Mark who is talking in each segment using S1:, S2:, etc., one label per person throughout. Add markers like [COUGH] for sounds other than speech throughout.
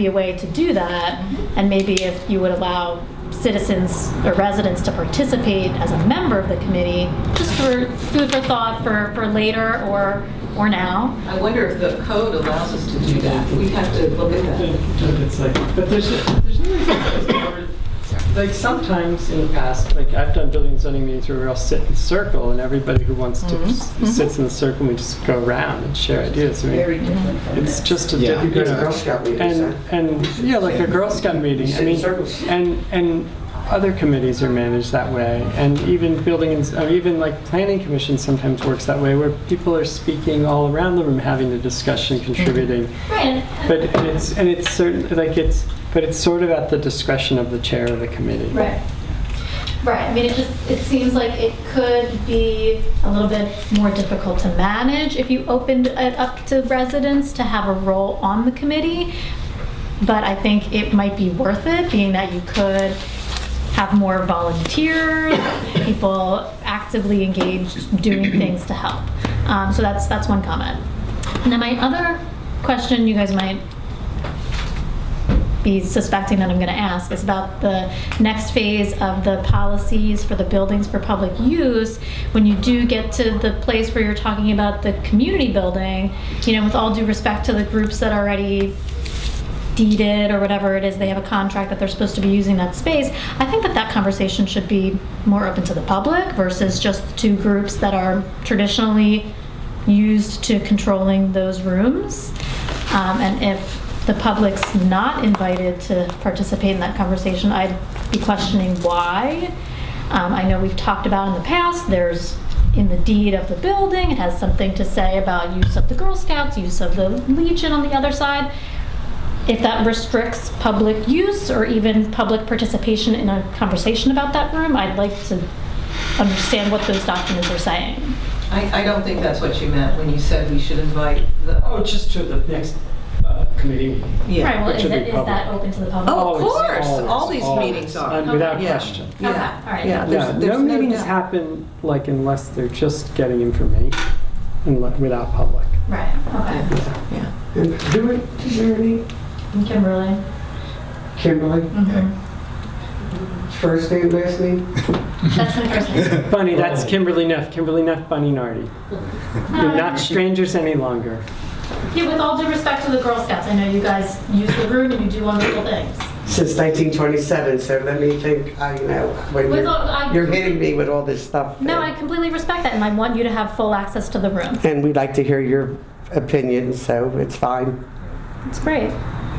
S1: be a way to do that, and maybe if you would allow citizens or residents to participate as a member of the committee, just for food for thought for, for later or, or now.
S2: I wonder if the code allows us to do that. We'd have to look at that.
S3: It's like, but there's, there's no reason that's covered. Like sometimes in the past, like I've done building and zoning meetings where we all sit in a circle and everybody who wants to s- sits in the circle and we just go around and share ideas. I mean,
S4: Very different from
S3: it's
S4: this.
S3: just a
S5: Yeah.
S3: different, you
S6: Because
S3: know.
S6: Girl Scout leaders,
S3: And,
S6: huh?
S3: and, yeah, like a Girl Scout meeting, I
S6: sit in
S3: mean,
S6: circles.
S3: and, and other committees are managed that way, and even building, and- or even like planning commission sometimes works that way, where people are speaking all around the room, having a discussion, contributing.
S1: Right.
S3: But and it's, and it's certain, like it's, but it's sort of at the discretion of the chair of the committee.
S1: Right. Right, I mean, it just, it seems like it could be a little bit more difficult to manage if you opened it up to residents to have a role on the committee. But I think it might be worth it, being that you could have more volunteers, [COUGHS] people actively engaged doing things to help. Um, so that's, that's one comment. And then my other question you guys might be suspecting that I'm going to ask is about the next phase of the policies for the buildings for public use. When you do get to the place where you're talking about the community building, you know, with all due respect to the groups that already deeded or whatever it is, they have a contract that they're supposed to be using that space. I think that that conversation should be more open to the public versus just two groups that are traditionally used to controlling those rooms. Um, and if the public's not invited to participate in that conversation, I'd be questioning why. Um, I know we've talked about in the past, there's in the deed of the building, it has something to say about use of the Girl Scouts, use of the Legion on the other side if that restricts public use or even public participation in a conversation about that room, I'd like to understand what those documents are saying.
S2: I, I don't think that's what you meant when you said we should invite the.
S3: Oh, just to the next uh, committee.
S1: Right, well, is
S3: Which would
S1: that,
S3: be
S1: is that
S3: public.
S1: open to the
S2: Oh,
S1: public?
S2: of
S3: Always,
S2: course. All
S3: always,
S2: these
S3: always.
S2: meetions are.
S3: And Without
S2: Yeah.
S3: question.
S1: Okay,
S2: Yeah.
S1: all right.
S2: Yeah,
S3: Yeah,
S2: there's, there's
S3: no meetings
S2: doubt.
S3: happen like unless they're just getting information and li- without public.
S1: Right, okay.
S2: Yeah.
S6: And who, is there any,
S1: And Kimberly?
S6: Kimberly,
S1: Mhm.
S6: first name, last name?
S1: That's my
S6: [LAUGHS]
S1: first name.
S3: Bunny, that's Kimberly Neff, Kimberly Neff, Bunny Nardi. You're not strangers any longer.
S1: Um, Yeah, with all due respect to the Girl Scouts, I know you guys use the room and you do wonderful things.
S6: Since 1927, so let me think, I, you know, when
S1: With all- I-
S6: you're, you're hitting me with all this stuff.
S1: No, I
S6: and-
S1: completely respect that and I want you to have full access to the room.
S6: And we'd like to hear your opinion, so it's fine.
S1: It's great.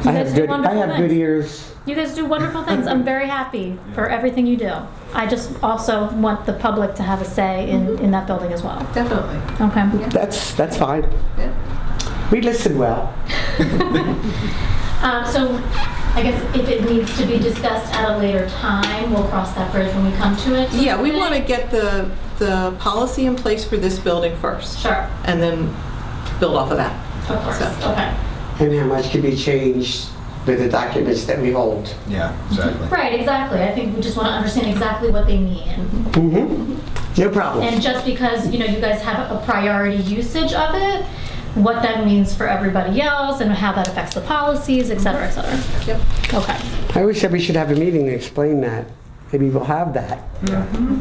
S6: I have good, I have good ears.
S1: You guys do wonderful things. I'm very happy for everything you do. I just also want the public to have a say in,
S2: Mm-hmm.
S1: in that building as well.
S2: Definitely.
S1: Okay.
S6: That's, that's fine.
S2: Yeah.
S6: We listen well.
S1: Um, so I guess if it needs to be discussed at a later time, we'll cross that bridge when we come to it.
S2: Yeah, we want to get the, the policy in place for this building first
S1: Sure,
S2: and then build off of that.
S1: of course. Okay.
S6: And how much can be changed with the documents that we hold?
S5: Yeah, exactly.
S1: Right, exactly. I think we just want to understand exactly what they mean.
S6: Mm-hmm. No problem.
S1: And just because, you know, you guys have a priority usage of it, what that means for everybody else and how that affects the policies, et cetera, et cetera.
S2: Yep.
S1: Okay.
S6: I always said we should have a meeting to explain that. Maybe we'll have that.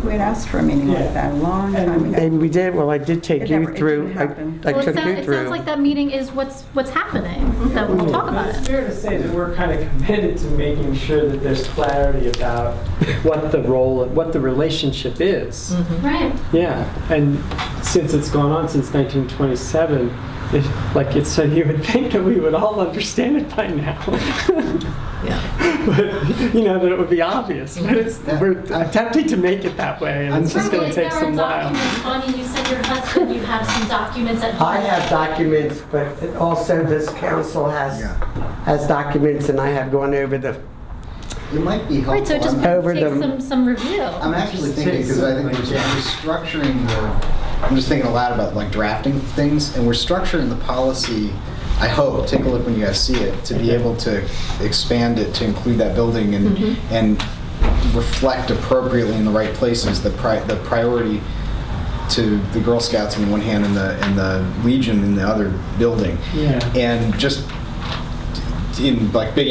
S4: We'd asked for a meeting like that a long time ago.
S6: Maybe we did, well, I did take
S4: It
S6: you
S4: never- it
S6: through,
S4: didn't
S6: I
S4: happen.
S6: I
S1: Well, it
S6: took
S1: sounds,
S6: you
S1: it sounds
S6: through.
S1: like that meeting is what's, what's happening, that we'll talk about
S3: But It's
S1: it.
S3: fair to say that we're kind of committed to making sure that there's clarity about [LAUGHS] what the role, what the relationship is.
S2: Mm-hmm.
S1: Right.
S3: Yeah, and since it's gone on since 1927, it, like it's so you would [LAUGHS] think that we would all understand it by now. [LAUGHS]
S2: Yeah.
S3: but you know that it would be obvious. But it's we're attempting to make it that way, and it's just going to take some while.
S1: Bonnie, you said your husband, you have some documents at
S6: I have documents, but it also this council has,
S5: Yeah.
S6: has documents, and I have gone over the,
S5: It might be helpful.
S1: Right, so it just
S5: I'm-
S6: Over
S1: takes
S6: the-
S1: some, some review.
S5: I'm actually thinking, because I think we're we're structuring the, I'm just thinking a lot about like drafting things, and we're structuring the policy, I hope, take a look when you guys see it, to be able to expand it to include that building and,
S1: Mm-hmm.
S5: and reflect appropriately in the right places, the pri, the priority to the Girl Scouts in one hand and the, and the Legion in the other building.
S3: Yeah.
S5: And just in like big